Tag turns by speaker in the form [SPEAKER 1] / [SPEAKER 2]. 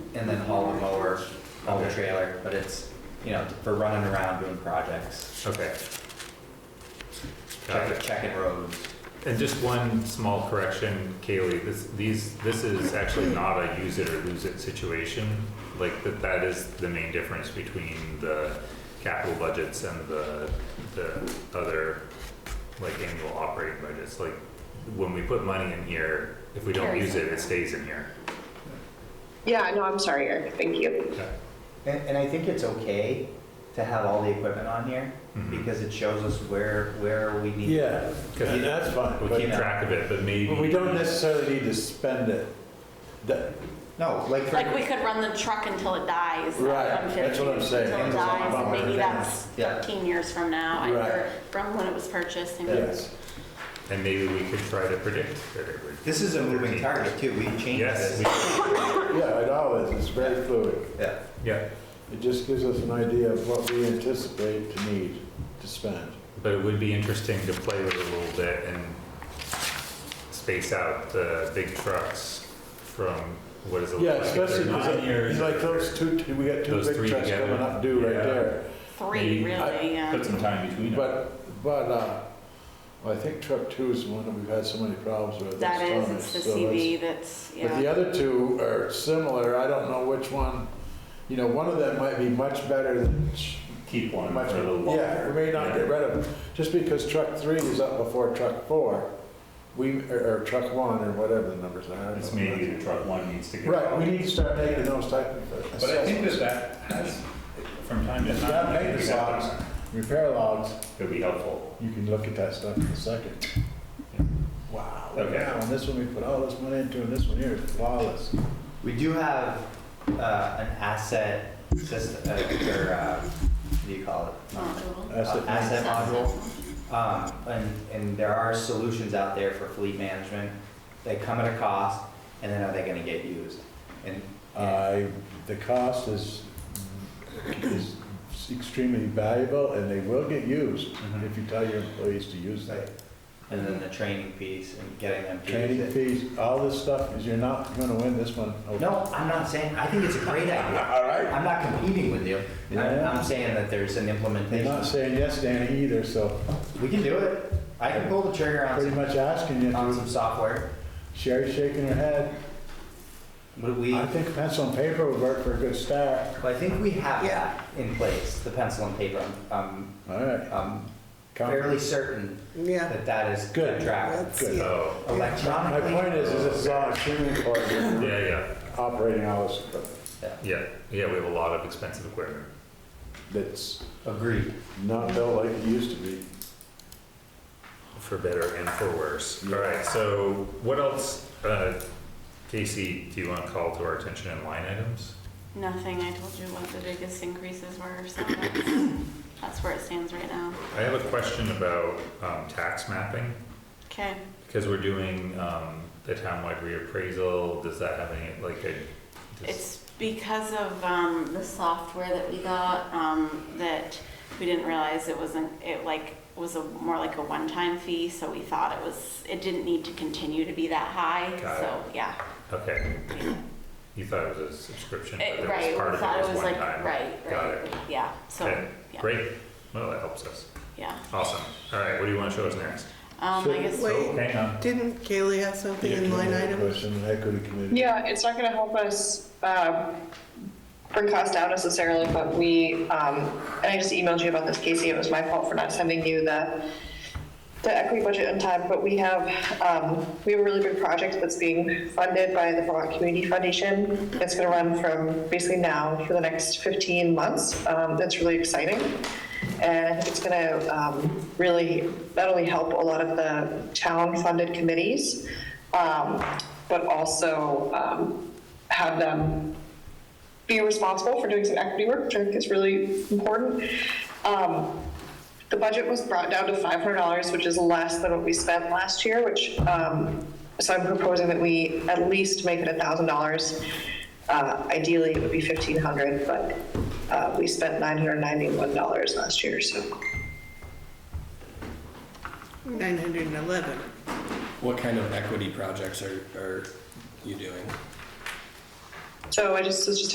[SPEAKER 1] and then haul the mower, haul the trailer, but it's, you know, for running around doing projects,
[SPEAKER 2] Okay. Got
[SPEAKER 1] check-
[SPEAKER 2] it.
[SPEAKER 1] checking roads.
[SPEAKER 2] And just one small correction, Kaylee, this, these, this is actually not a use it or lose it situation. Like, that, that is the main difference between the capital budgets and the, the other, like, annual operating budgets. Like, when we put money in here, if we don't
[SPEAKER 3] Carries
[SPEAKER 2] use it,
[SPEAKER 3] over.
[SPEAKER 2] it stays in here.
[SPEAKER 4] Yeah, no, I'm sorry, Eric, thank you.
[SPEAKER 2] Okay.
[SPEAKER 1] And, and I think it's okay to have all the equipment on here
[SPEAKER 2] Mhm.
[SPEAKER 1] because it shows us where, where we need.
[SPEAKER 5] Yeah,
[SPEAKER 2] Okay.
[SPEAKER 5] that's fine,
[SPEAKER 2] We
[SPEAKER 5] but
[SPEAKER 2] keep track of it, but maybe.
[SPEAKER 5] we don't necessarily need to spend it. That-
[SPEAKER 1] No, like for.
[SPEAKER 3] Like, we could run the truck until it dies. at
[SPEAKER 5] Right, that's what I'm
[SPEAKER 3] 150,
[SPEAKER 5] saying.
[SPEAKER 3] Until it
[SPEAKER 1] It's all
[SPEAKER 3] dies,
[SPEAKER 1] about
[SPEAKER 3] and maybe
[SPEAKER 1] everything.
[SPEAKER 3] that's
[SPEAKER 1] Yeah.
[SPEAKER 3] 15 years from now,
[SPEAKER 5] Right.
[SPEAKER 3] either from when it was purchased. I mean,
[SPEAKER 5] Yes,
[SPEAKER 2] And maybe we could try to predict that it would.
[SPEAKER 1] This is a moving target too, we changed this.
[SPEAKER 2] Yes, we,
[SPEAKER 5] yeah, it always, it's very fluid.
[SPEAKER 1] Yeah,
[SPEAKER 2] yeah,
[SPEAKER 5] It just gives us an idea of what we anticipate to need to spend.
[SPEAKER 2] but it would be interesting to play with it a little bit and space out the big trucks from, what is it? look
[SPEAKER 5] Yeah,
[SPEAKER 2] like if
[SPEAKER 5] especially
[SPEAKER 2] they're nine
[SPEAKER 5] because,
[SPEAKER 2] years
[SPEAKER 5] like
[SPEAKER 2] or-
[SPEAKER 5] those two, we got two
[SPEAKER 2] Those three
[SPEAKER 5] big trucks
[SPEAKER 2] together.
[SPEAKER 5] coming up due right
[SPEAKER 2] Yeah.
[SPEAKER 5] there.
[SPEAKER 3] Three,
[SPEAKER 2] Maybe
[SPEAKER 3] really, um, yeah.
[SPEAKER 6] Put some time between them.
[SPEAKER 5] But, but, uh, well, I think truck two is the one that we've had so many problems with.
[SPEAKER 3] That
[SPEAKER 5] It's
[SPEAKER 3] is,
[SPEAKER 5] on
[SPEAKER 3] it's
[SPEAKER 5] it,
[SPEAKER 3] the
[SPEAKER 5] so that's-
[SPEAKER 3] CV that's,
[SPEAKER 5] But the
[SPEAKER 3] yeah.
[SPEAKER 5] other two are similar, I don't know which one, you know, one of them might be much better than,
[SPEAKER 6] Keep one
[SPEAKER 5] much,
[SPEAKER 6] for a little
[SPEAKER 5] yeah, we
[SPEAKER 6] longer.
[SPEAKER 5] may not get rid of them. Just because truck three is up before truck four, we, or or truck one, or whatever the numbers are. I don't
[SPEAKER 6] It's
[SPEAKER 5] know.
[SPEAKER 6] maybe the truck one needs to get.
[SPEAKER 5] Right, we need to start making those type of
[SPEAKER 6] But I think that
[SPEAKER 5] assessments.
[SPEAKER 6] that has, from time to
[SPEAKER 5] It's not
[SPEAKER 6] time.
[SPEAKER 5] maintenance logs, repair logs,
[SPEAKER 6] It'd be helpful.
[SPEAKER 5] you can look at that stuff in a second. Wow, look
[SPEAKER 6] Okay.
[SPEAKER 5] now, and this one we put all this money into, and this one here is flawless.
[SPEAKER 1] We do have uh, an asset system, or uh, what do you call it?
[SPEAKER 3] Module.
[SPEAKER 5] Asset
[SPEAKER 1] Uh, Asset module. Um, And, and there are solutions out there for fleet management that come at a cost, and then are they gonna get used? And, and-
[SPEAKER 5] I, the cost is, is extremely valuable and they will get used
[SPEAKER 6] Mm-hmm.
[SPEAKER 1] Mhm.
[SPEAKER 5] if you tell your employees to use that.
[SPEAKER 1] and then the training piece and getting them to use
[SPEAKER 5] Training
[SPEAKER 1] it.
[SPEAKER 5] fees, all this stuff, is you're not gonna win this one.
[SPEAKER 1] No, I'm not saying, I think it's a great idea.
[SPEAKER 5] All right.
[SPEAKER 1] I'm not competing with you. I'm,
[SPEAKER 5] Yeah.
[SPEAKER 1] I'm saying that there's an
[SPEAKER 5] They're not
[SPEAKER 1] implementation.
[SPEAKER 5] saying yes, Danny, either, so
[SPEAKER 1] We can do it. I can pull the trigger on
[SPEAKER 5] pretty
[SPEAKER 1] some,
[SPEAKER 5] much asking you
[SPEAKER 1] on
[SPEAKER 5] to.
[SPEAKER 1] some software.
[SPEAKER 5] Sherry's shaking her head.
[SPEAKER 1] Would we?
[SPEAKER 5] I think pencil and paper would work for a good start.
[SPEAKER 1] Well, I think we have that in place, the pencil and paper. I'm,
[SPEAKER 5] All right.
[SPEAKER 1] I'm- I'm
[SPEAKER 5] Com-
[SPEAKER 1] fairly certain
[SPEAKER 7] Yeah,
[SPEAKER 1] that that is
[SPEAKER 5] Good.
[SPEAKER 1] Ah, good track.
[SPEAKER 7] that's, yeah.
[SPEAKER 2] Oh,
[SPEAKER 5] My
[SPEAKER 1] Electronically,
[SPEAKER 5] point is, is it's all extremely important,
[SPEAKER 2] yeah, yeah,
[SPEAKER 5] operating hours
[SPEAKER 2] yeah, yeah, we have a lot of expensive equipment.
[SPEAKER 5] that's
[SPEAKER 1] agreed.
[SPEAKER 5] not built like it used to be.
[SPEAKER 2] For better and for worse. All right, so what else, uh, Casey, do you want to call to our attention in line items?
[SPEAKER 3] Nothing, I told you what the biggest increases were, so that's, that's where it stands right now.
[SPEAKER 2] I have a question about, um, tax mapping,
[SPEAKER 3] Okay,
[SPEAKER 2] because we're doing, um, the townwide reappraisal, does that have any, like, a? does-
[SPEAKER 3] it's because of, um, the software that we got, um, that we didn't realize it wasn't, it like, was a, more like a one-time fee, so we thought it was, it didn't need to continue to be that high,
[SPEAKER 2] Got it.
[SPEAKER 3] so, yeah.
[SPEAKER 2] Okay. You thought it was a subscription,
[SPEAKER 3] It-
[SPEAKER 2] but
[SPEAKER 3] Right,
[SPEAKER 2] it was part
[SPEAKER 3] we
[SPEAKER 2] of
[SPEAKER 3] thought
[SPEAKER 2] it
[SPEAKER 3] it
[SPEAKER 2] was
[SPEAKER 3] was
[SPEAKER 2] one
[SPEAKER 3] like,
[SPEAKER 2] time.
[SPEAKER 3] right,
[SPEAKER 2] Got
[SPEAKER 3] right,
[SPEAKER 2] it.
[SPEAKER 3] yeah, so,
[SPEAKER 2] Okay,
[SPEAKER 3] yeah,
[SPEAKER 2] great. Well, that helps us.
[SPEAKER 3] yeah.
[SPEAKER 2] Awesome. All right, what do you want to show us next?
[SPEAKER 3] Um, I guess.
[SPEAKER 2] Oh,
[SPEAKER 7] Wait,
[SPEAKER 2] hang on.
[SPEAKER 7] didn't Kaylee have something in line items?
[SPEAKER 5] Question, equity committee.
[SPEAKER 4] Yeah, it's not gonna help us, um, bring costs down necessarily, but we, um, and I just emailed you about this, Casey, it was my fault for not sending you the, the equity budget on time, but we have, um, we have a really big project that's being funded by the Vermont Community Foundation. It's gonna run from basically now for the next fifteen months, um, that's really exciting. And I think it's going to really not only help a lot of the town-funded committees, um, but also um, have them be responsible for doing some equity work, which I think is really important. Um, The budget was brought down to $500, which is less than what we spent last year, which, um, so I'm proposing that we at least make it $1,000. Uh, Ideally, it would be 1,500, but uh, we spent $991 last year, so.
[SPEAKER 7] Nine hundred and eleven.
[SPEAKER 8] What kind of equity projects are, are you doing?
[SPEAKER 4] So I just, was just